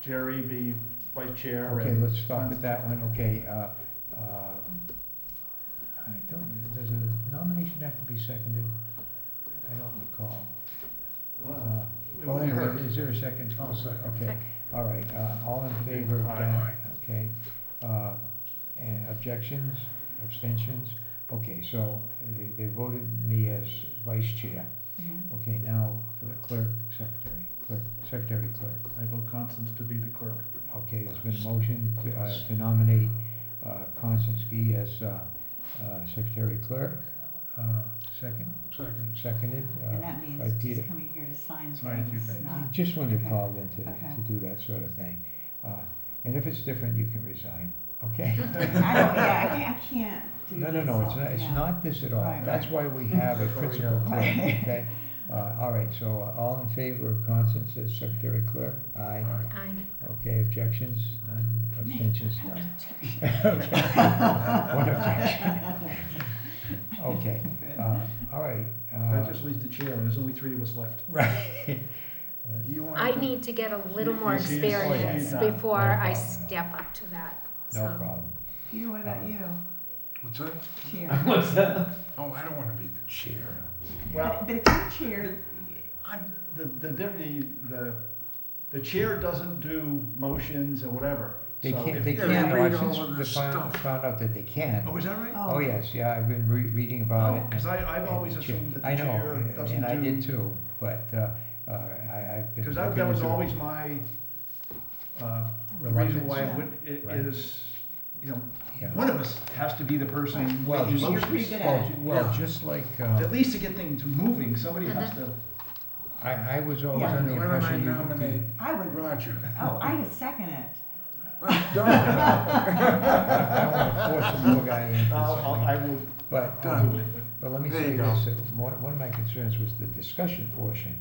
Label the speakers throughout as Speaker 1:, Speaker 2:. Speaker 1: Jerry be vice chair.
Speaker 2: Okay,
Speaker 1: and-
Speaker 2: let's stop at that one, okay, uh, um, I don't, does a nomination have to be seconded? I don't recall.
Speaker 1: Well,
Speaker 2: Uh,
Speaker 1: It
Speaker 2: Well,
Speaker 1: wouldn't
Speaker 2: anyway,
Speaker 1: hurt.
Speaker 2: is there a 2nd
Speaker 3: I'll second.
Speaker 2: Okay, all right, uh, all in favor of that,
Speaker 1: Aye.
Speaker 2: okay? Uh, And objections, abstentions? Okay, so they, they voted me as vice chair. Okay, now for the clerk, secretary, clerk, secretary clerk.
Speaker 1: I vote Constance to be the clerk.
Speaker 2: Okay, there's been a motion to, uh, to nominate, uh, Constance Gee as, uh, uh, secretary clerk. Uh, second,
Speaker 3: Second.
Speaker 2: seconded,
Speaker 4: And
Speaker 2: uh,
Speaker 4: that
Speaker 2: by
Speaker 4: means
Speaker 2: Peter.
Speaker 4: she's coming here to sign
Speaker 1: Sign a few
Speaker 4: things,
Speaker 1: things.
Speaker 4: not.
Speaker 2: just when you're
Speaker 4: okay,
Speaker 2: called in to,
Speaker 4: okay.
Speaker 2: to do that sort of thing. Uh, and if it's different, you can resign, okay?
Speaker 4: I don't, yeah, I can't, I can't do
Speaker 2: No, no,
Speaker 4: this
Speaker 2: no, it's
Speaker 4: all,
Speaker 2: not, it's
Speaker 4: yeah.
Speaker 2: not this at all.
Speaker 4: Right,
Speaker 2: That's why we have a
Speaker 1: That's why we
Speaker 2: principal
Speaker 1: have-
Speaker 2: clerk,
Speaker 4: Right.
Speaker 2: okay? Uh, all right, so uh, all in favor of Constance as secretary clerk? Aye.
Speaker 5: Aye.
Speaker 2: Okay, objections? None, abstentions? None. One objection. Okay, uh, all right.
Speaker 1: That
Speaker 2: uh,
Speaker 1: just leaves the chair, and there's only three of us left.
Speaker 2: Right.
Speaker 1: You want
Speaker 5: I
Speaker 1: to-
Speaker 5: need to get a little
Speaker 1: You-
Speaker 5: more
Speaker 1: you see this?
Speaker 2: Oh, yeah.
Speaker 5: experience
Speaker 1: Yeah.
Speaker 5: before
Speaker 2: No
Speaker 5: I
Speaker 2: problem.
Speaker 5: step up to that.
Speaker 2: No
Speaker 5: So,
Speaker 2: problem.
Speaker 4: Peter, what about you?
Speaker 3: What's that?
Speaker 4: Chair.
Speaker 3: Oh, I don't want to be the chair.
Speaker 1: Well,
Speaker 4: But if you're chair,
Speaker 1: I'm, the, the deputy, the, the chair doesn't do motions or whatever.
Speaker 2: They
Speaker 1: so
Speaker 2: can't,
Speaker 1: if-
Speaker 2: they
Speaker 3: Yeah,
Speaker 2: can't,
Speaker 3: read
Speaker 2: I
Speaker 3: all
Speaker 2: since
Speaker 3: of this
Speaker 2: found-
Speaker 3: stuff.
Speaker 2: found out that they can.
Speaker 1: Oh, is that right?
Speaker 2: Oh, yes, yeah, I've been re- reading about it.
Speaker 1: Because I, I've
Speaker 2: and-
Speaker 1: always
Speaker 2: and check-
Speaker 1: assumed that
Speaker 2: I
Speaker 1: the
Speaker 2: know,
Speaker 1: chair
Speaker 2: and-
Speaker 1: doesn't
Speaker 2: and I did
Speaker 1: do.
Speaker 2: too, but, uh, uh, I, I've been.
Speaker 1: Because that
Speaker 2: looking
Speaker 1: was
Speaker 2: into-
Speaker 1: always my, uh, the reason why I
Speaker 4: Reluctance.
Speaker 1: would, it
Speaker 2: Right.
Speaker 1: is, you know,
Speaker 2: Yeah.
Speaker 1: one of us has to be the person
Speaker 2: Well,
Speaker 1: making
Speaker 2: just-
Speaker 4: You're
Speaker 1: motions.
Speaker 4: pretty good
Speaker 2: Well,
Speaker 4: at it.
Speaker 2: ju- well, just like, uh,
Speaker 1: At least to get things moving, somebody has to,
Speaker 2: I, I was always
Speaker 4: Yeah.
Speaker 3: Why
Speaker 2: under the
Speaker 3: don't I
Speaker 2: impression you.
Speaker 3: nominate
Speaker 4: I would,
Speaker 3: Roger?
Speaker 4: oh, I would second it.
Speaker 3: Well, don't.
Speaker 2: I don't wanna force a little guy into
Speaker 1: I'll- I'll-
Speaker 2: something,
Speaker 1: I will
Speaker 2: but, uh,
Speaker 3: Done.
Speaker 1: do it. but-
Speaker 2: But let me
Speaker 3: There
Speaker 2: say
Speaker 3: you go.
Speaker 2: this, that one one of my concerns was the discussion portion,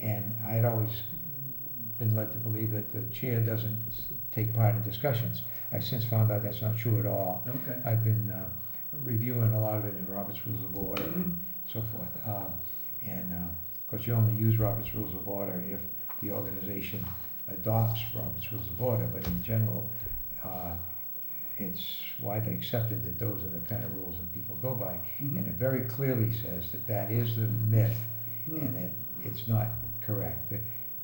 Speaker 2: and I had always been led to believe that the chair doesn't s- take part in discussions. I've since found out that's not true at all.
Speaker 1: Okay.
Speaker 2: I've been uh, reviewing a lot of it in Robert's Rules of Order and so forth. Um, And, uh, of course, you only use Robert's Rules of Order if the organization adopts Robert's Rules of Order, but in general, uh, it's widely accepted that those are the kind of rules that people go by. And it very clearly says that that is the myth
Speaker 1: Mm-hmm.
Speaker 2: and that it's not correct. The,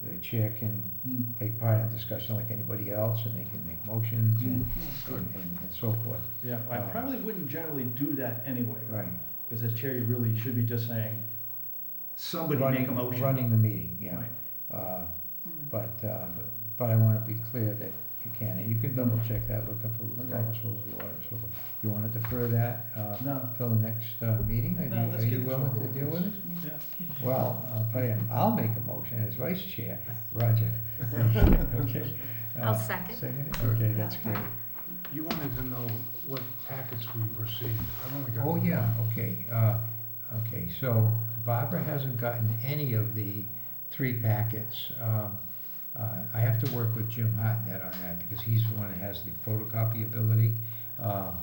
Speaker 2: the chair can
Speaker 1: Mm.
Speaker 2: take part in discussion like anybody else and they can make motions and, and, and, and so forth.
Speaker 1: Yeah, I
Speaker 2: Uh,
Speaker 1: probably wouldn't generally do that anyway.
Speaker 2: Right.
Speaker 1: Because as chair, you really should be just saying, somebody
Speaker 2: running,
Speaker 1: make a motion.
Speaker 2: running the meeting, yeah.
Speaker 1: Right.
Speaker 2: Uh, but, uh, but I want to be clear that you can. And you can double check that, look up
Speaker 1: Okay.
Speaker 2: Robert's Rules of Order and so forth. You want to defer that uh,
Speaker 1: No.
Speaker 2: till the next uh, meeting? Are
Speaker 1: No,
Speaker 2: you,
Speaker 1: let's
Speaker 2: are you
Speaker 1: get this
Speaker 2: willing
Speaker 1: over
Speaker 2: to
Speaker 1: with.
Speaker 2: deal with it?
Speaker 1: Yeah.
Speaker 2: Well, I'll tell you, I'll make a motion as vice chair, Roger. Okay. Uh,
Speaker 5: I'll second.
Speaker 2: Second, it? okay, that's great.
Speaker 3: You wanted to know what packets we received. I've only got.
Speaker 2: Oh, yeah, okay, uh, okay, so Barbara hasn't gotten any of the three packets. Um, uh, I have to work with Jim Hotnet on that, because he's the one that has the photocopy ability. Um,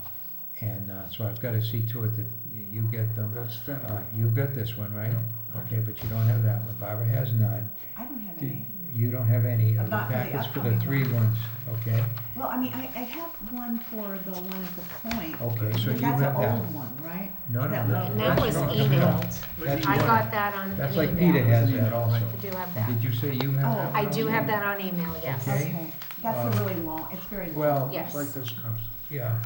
Speaker 2: And uh, so I've gotta see to it that you get them.
Speaker 3: That's
Speaker 2: Uh,
Speaker 3: Fenton.
Speaker 2: You've got this one, right? Okay, but you don't have that one, Barbara has none.
Speaker 4: I don't have
Speaker 2: Did-
Speaker 4: any.
Speaker 2: You don't have any of the
Speaker 4: Not for the
Speaker 2: packets for the
Speaker 4: upcoming
Speaker 2: three ones, okay?
Speaker 4: Well, I mean, I, I have one for the one at the point.
Speaker 2: Okay, so you
Speaker 4: That's an
Speaker 2: have that.
Speaker 4: old one, right?
Speaker 2: No, no,
Speaker 4: That
Speaker 2: no.
Speaker 4: one.
Speaker 5: And that
Speaker 2: that's
Speaker 5: was
Speaker 2: wrong.
Speaker 5: emailed.
Speaker 2: That's
Speaker 5: I
Speaker 2: wrong.
Speaker 5: got that on
Speaker 2: That's like Peter
Speaker 5: email.
Speaker 2: has that also.
Speaker 5: I do have
Speaker 2: Did
Speaker 5: that.
Speaker 2: you say you have
Speaker 4: Oh,
Speaker 2: that?
Speaker 5: I
Speaker 2: one?
Speaker 5: do have that on email, yes.
Speaker 2: Okay.
Speaker 4: Okay, that's
Speaker 2: Uh,
Speaker 4: a really long, it's very long.
Speaker 2: Well,
Speaker 5: Yes.
Speaker 3: It's like this comes.
Speaker 2: yeah,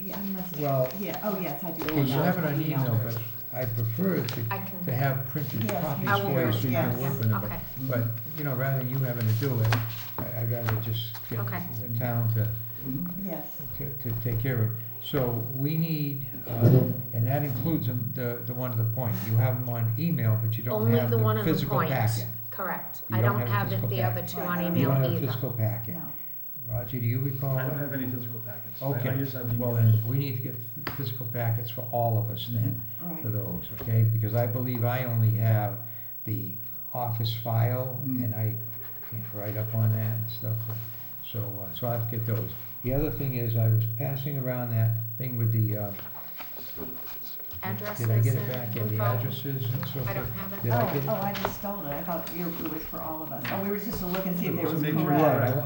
Speaker 4: Yeah, I must,
Speaker 2: well,
Speaker 4: yeah, oh, yes, I do.
Speaker 2: you have it on
Speaker 4: Yeah.
Speaker 2: email, but I prefer to,
Speaker 5: I can-
Speaker 2: to have printed
Speaker 4: Yes,
Speaker 2: copies
Speaker 4: I
Speaker 5: will
Speaker 2: for you so you can
Speaker 4: print,
Speaker 2: work
Speaker 4: yes.
Speaker 2: with them.
Speaker 5: Okay.
Speaker 2: But, you know, rather than you having to do it, I, I'd rather just get
Speaker 5: Okay.
Speaker 2: the town to,
Speaker 1: Mhm.
Speaker 4: Yes,
Speaker 2: to, to take care of. So we need, uh, and that includes them- the, the one at the point. You have them on email, but you don't
Speaker 5: Only
Speaker 2: have
Speaker 5: the one
Speaker 2: the
Speaker 5: on the
Speaker 2: physical
Speaker 5: point.
Speaker 2: packet.
Speaker 5: Correct.
Speaker 2: You
Speaker 5: I
Speaker 2: don't
Speaker 5: don't
Speaker 2: have a
Speaker 5: have it-
Speaker 2: physical
Speaker 5: the
Speaker 2: packet.
Speaker 5: other two on
Speaker 4: You
Speaker 2: You
Speaker 5: email
Speaker 2: don't have a
Speaker 5: either.
Speaker 2: physical packet.
Speaker 4: no.
Speaker 2: Roger, do you recall?
Speaker 1: I don't
Speaker 2: that?
Speaker 1: have any physical packets. I- I
Speaker 2: Okay,
Speaker 1: just have emails.
Speaker 2: well then, we need to get f- physical packets for all of us then,
Speaker 4: All right.
Speaker 2: for those, okay? Because I believe I only have the office file
Speaker 1: Mm.
Speaker 2: and I can't write up on that and stuff. So, uh, so I'll have to get those. The other thing is, I was passing around that thing with the, uh,
Speaker 5: Addresses
Speaker 2: did I get it back?
Speaker 5: and
Speaker 2: Yeah, the
Speaker 5: info.
Speaker 2: addresses and so forth.
Speaker 5: I don't have it.
Speaker 2: Did I
Speaker 4: Oh,
Speaker 2: get it?
Speaker 4: oh, I just stole it. I thought you- it was for all of us. Oh, we were just to look and see if it
Speaker 1: Just
Speaker 4: was
Speaker 1: make sure you
Speaker 2: Right,
Speaker 4: correct.
Speaker 2: I-